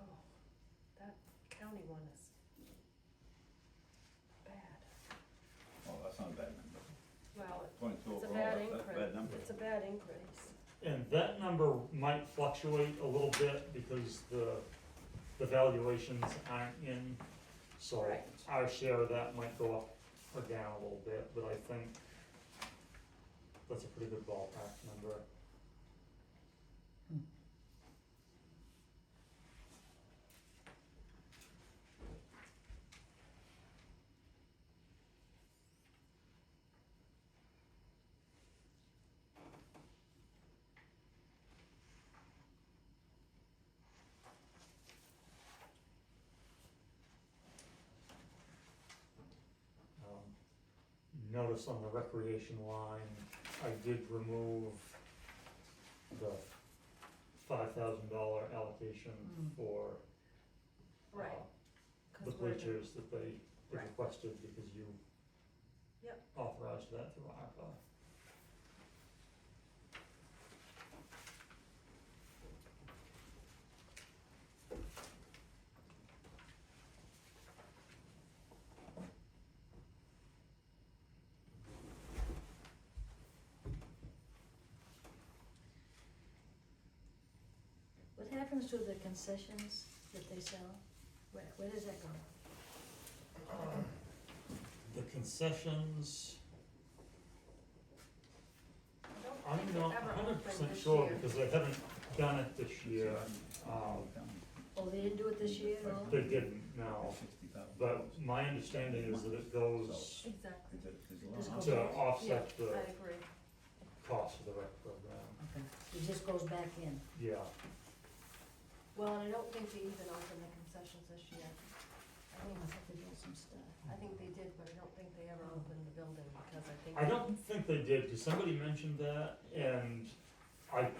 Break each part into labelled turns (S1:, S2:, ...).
S1: Oh, county one is bad.
S2: Well, that's not a bad number.
S1: Well,
S2: Point two
S1: it's a
S2: overall,
S1: bad
S2: that's that's a bad
S1: increase,
S2: number.
S1: it's a bad increase.
S3: And that number might fluctuate a little bit because the, the valuations aren't in. So
S1: Right.
S3: our share of that might go up or down a little bit, but I think that's a pretty good ballpark number. Um, Notice on the recreation line, I did remove the five thousand dollar allocation for uh,
S1: Right. 'cause
S3: the
S1: we're-
S3: bleachers that they they
S1: Right.
S3: requested because you
S1: Yep.
S3: authorized that through ARPA.
S4: What happens to the concessions that they sell? Where, where does that go?
S3: Um, The concessions,
S1: I don't
S3: I'm
S1: think it
S3: not
S1: ever
S3: hundred
S1: opened
S3: percent
S1: this
S3: sure
S1: year.
S3: because they haven't done it this year. Um,
S4: Oh, they didn't do it this year at all?
S3: They didn't, no.
S2: Sixty thousand
S3: But
S2: dollars.
S3: my understanding is that it goes
S1: Exactly,
S2: Is it, is it
S4: Just
S2: long?
S4: go-
S3: to offset
S1: I
S3: the
S1: agree.
S3: cost of the rec program,
S4: Okay, it just goes back in.
S3: yeah.
S1: Well, and I don't think they even opened the concessions this year. I
S4: Oh,
S1: think,
S4: I thought they did some stuff.
S1: I think they did, but I don't think they ever opened the building because I think.
S3: I don't think they did, cause somebody mentioned that, and I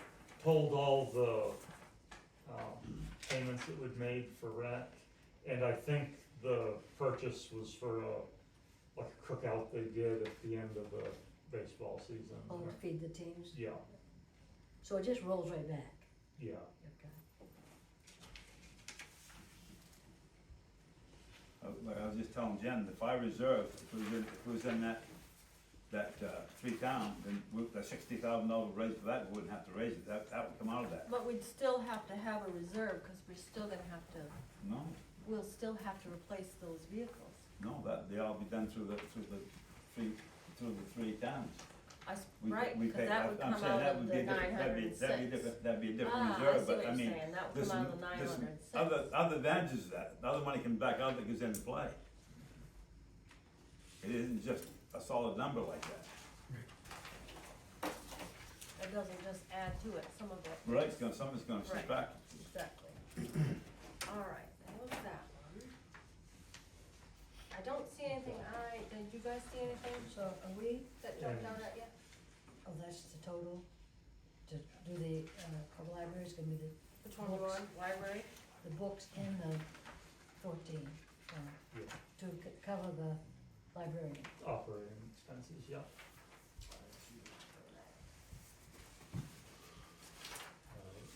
S3: told all the, um, payments that were made for rec, and I think the purchase was for a, like a cookout they did at the end of the baseball season.
S4: Oh, to feed the teams?
S3: Yeah,
S4: So it just rolls right back?
S3: yeah,
S4: Okay.
S2: Uh, Like I was just telling Jen, the fire reserve, if it was in, if it was in that, that, uh, three town, then we- the sixty thousand dollar raise for that, we wouldn't have to raise it, that, that would come out of that,
S5: But we'd still have to have a reserve, cause we're still gonna have to,
S2: no?
S5: we'll still have to replace those vehicles.
S2: No, that, they all be done through the, through the three, through the three towns.
S5: I, s-
S2: We-
S5: right,
S2: we
S5: cause
S2: pay-
S5: that
S2: I'm-
S5: would
S2: I'm
S5: come
S2: saying
S5: out
S2: that
S5: of
S2: would
S5: the
S2: be different-
S5: nine hundred and six.
S2: That'd be, that'd be different, that'd be a different
S5: Ah,
S2: reserve, but I mean.
S5: I see what you're saying, that would
S2: There's,
S5: come out of the nine
S2: there's
S5: hundred and six.
S2: other, other advantages to that, other money can back out that goes into play. It isn't just a solid number like that,
S5: It doesn't just add to it, some of it.
S2: right, it's gonna, something's gonna sit
S5: Right.
S2: back.
S5: Exactly. All right, that was that one. I don't see anything, I, did you guys see anything
S4: So are we,
S5: that jumped out at you?
S4: oh, that's the total, to do the, uh, our library's gonna be the,
S5: Which one do you
S4: Books.
S5: want, library?
S4: the books and the fourteen, uh,
S3: yeah,
S4: to c- cover the librarian.
S3: operating expenses, yeah. Alright.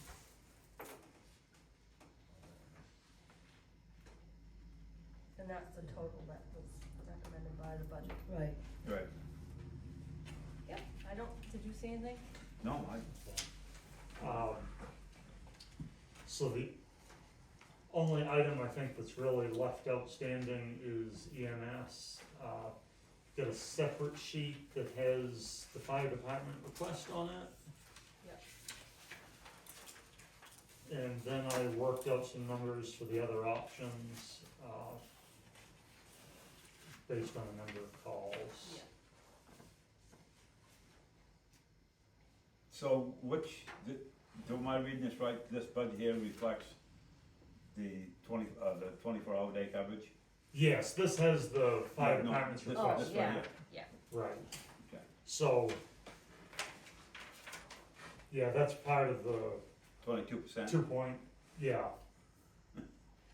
S5: And that's the total that was recommended by the budget.
S4: Right.
S2: Right.
S5: Yep, I don't, did you see anything?
S2: No, I,
S3: Um, so the only item I think that's really left outstanding is EMS. Uh, got a separate sheet that has the fire department request on it.
S5: Yep.
S3: And then I worked out some numbers for the other options, uh, based on the number of calls.
S5: Yeah.
S2: so which, th- do my reading this right, this budget here reflects the twenty, uh, the twenty-four hour day coverage?
S3: Yes, this has the fire
S2: No, no,
S3: department's
S2: this-
S3: request.
S2: this
S5: Oh,
S2: right
S5: yeah.
S2: here.
S3: Right.
S2: Okay.
S3: So. Yeah, that's part of the
S2: Twenty-two percent,
S3: two point, yeah,